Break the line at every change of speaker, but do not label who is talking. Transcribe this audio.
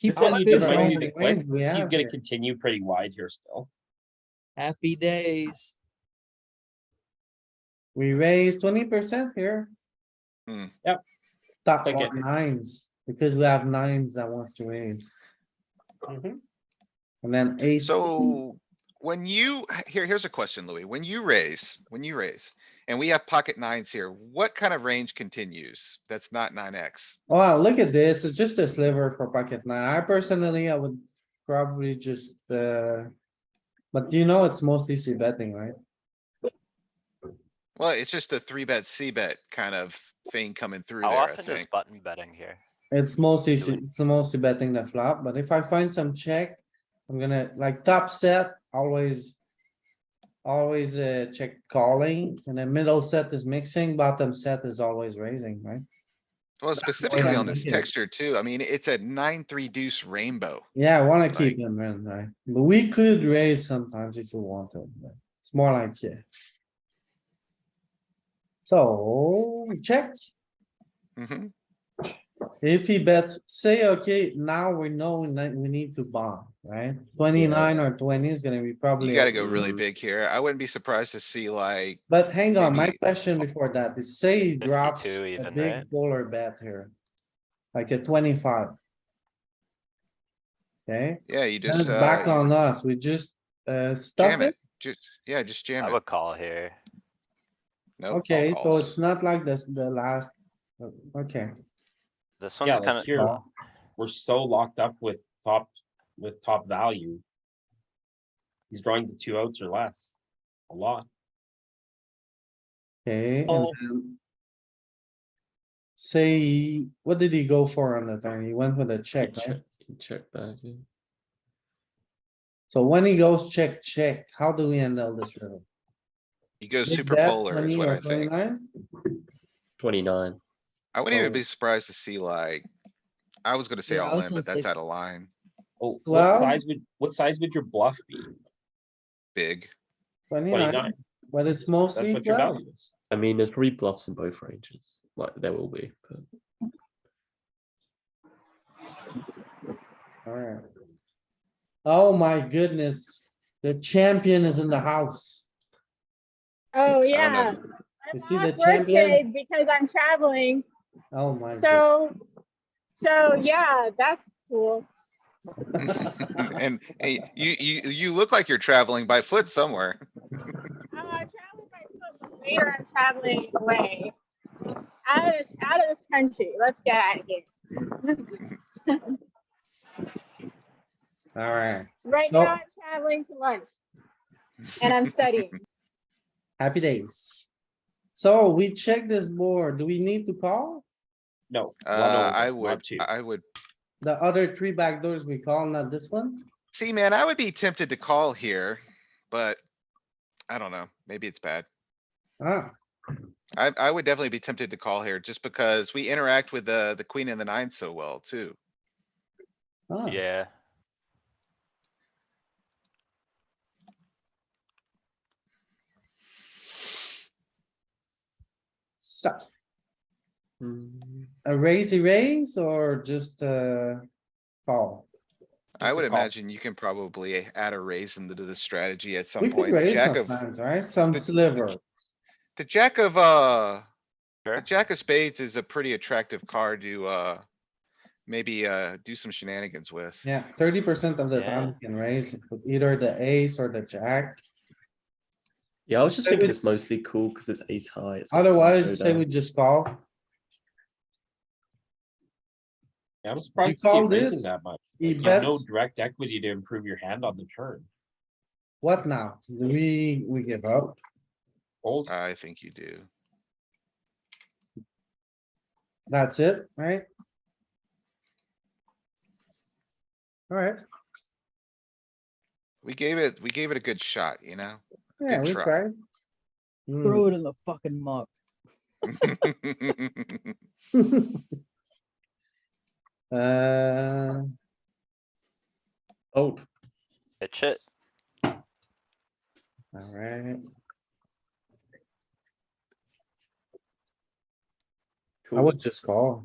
Keep
This
on
one
you
you
just
just
right.
need to click.
wins we
He's
have
gonna
here.
continue pretty wide here still.
Happy days.
We raise twenty percent here.
Hmm.
Yep.
Top
Click it.
nines, because we have nines that wants to raise,
Mhm.
and then ace.
So when you, here, here's a question, Louis. When you raise, when you raise, and we have pocket nines here, what kind of range continues? That's not nine X.
Wow, look at this, it's just a sliver for pocket nine, I personally, I would probably just, uh. But you know, it's mostly c betting, right?
Well, it's just a three bet, C bet kind of thing coming through
How
there, I
often is
think.
button betting here?
It's mostly,
Do
c- it's mostly betting the flop, but if I find some check, I'm gonna, like, top set, always. Always, uh, check calling, and then middle set is mixing, bottom set is always raising, right?
Well, specifically
I'm
on this
thinking.
texture too. I mean, it's a nine, three deuce rainbow.
Yeah, I wanna
Right.
keep them in, right? But we could raise sometimes if we want to, but it's more like, yeah. So, check,
Mhm.
if he bets, say, okay, now we know that we need to bomb, right? Twenty-nine or twenty is gonna be probably.
You
a
gotta go really
big.
big here. I wouldn't be surprised to see like,
But hang on, my
Maybe-
question before that is say he drops
52
a
even,
big
right?
polar bet here. Like a twenty-five. Okay,
yeah, you
then it's
just,
back
uh,
on us. We just, uh, stop
jam
it.
it. Just, yeah, just jam
I
it.
would call here.
Nope, all
Okay, so
calls.
it's not like this, the last, uh, okay,
This
Yeah,
one's
like
kinda,
here, we're so locked up with top, with top value. He's drawing the two outs or less, a lot.
okay. and
Oh.
then Say, he- what did he go for on the turn? He went with a check, right?
Check back. yeah.
So when he goes check, check, how do we handle this river?
You go
Big
super
bet,
polar is
20
what
or
I think.
29?
Twenty-nine.
I wouldn't even
Oh.
be surprised to see like, I was gonna say
Yeah, I
all
was
in,
gonna
but that's
say-
out of line,
Oh, what
Well-
size would, what size would your bluff be?
big.
Twenty-nine,
Twenty-nine,
but it's
that's
mostly
what your
twelve.
value is.
I mean, there's probably bluffs in both ranges. Like there will be, but
Alright. Oh my goodness, the champion is in the house.
Oh,
know.
yeah.
You
I'm
see the
off work
champion?
day because I'm traveling,
Oh my. god.
so, so, yeah, that's cool.
And, and you, you, you look like you're traveling by foot somewhere.
Uh, traveling by foot, but later I'm traveling away. Out of, this- out of this country, let's get out of here.
Alright,
Right
So-
now, I'm traveling to lunch, and I'm studying.
happy days. So we check this board. Do we need to call?
No. one
Uh,
over,
I
not
would,
two.
I would,
The other three backdoors we call, not this one?
see, man, I would be tempted to call here, but I don't know, maybe it's bad.
Ah,
I, I would definitely be tempted to call here just because we interact with the, the queen and the nine so well too.
ah,
yeah.
so
Mm,
a raise, raise or just uh call?
I
Just a
would
call.
imagine you can probably add a raise into the strategy at some
We could
point. The
raise
jack of,
sometimes, right? Some
the-
sliver.
the jack of, uh,
Sure.
The jack of spades is a pretty attractive card to, uh, maybe, uh, do some shenanigans with.
Yeah, thirty percent of the
Yeah.
time you can raise with either the ace or the jack.
Yeah, I was just
Say
thinking
we-
it's mostly cool because it's ace high. It's got some
Otherwise, say
showdown.
we just call.
Yeah, I'm surprised to see
call
it raising
this?
that much.
He
You have no
bets,
direct equity to improve your hand on the turn.
what now? Do we, we give up?
Fold,
I think you do.
That's it, right? Alright,
We gave it, we gave it a good shot, you know?
yeah,
Good
we
try.
tried. Hmm.
Throw it in the fucking muck.
Hmm. Uh,
Fold.
It's it.
alright, I
Cool.
would just call.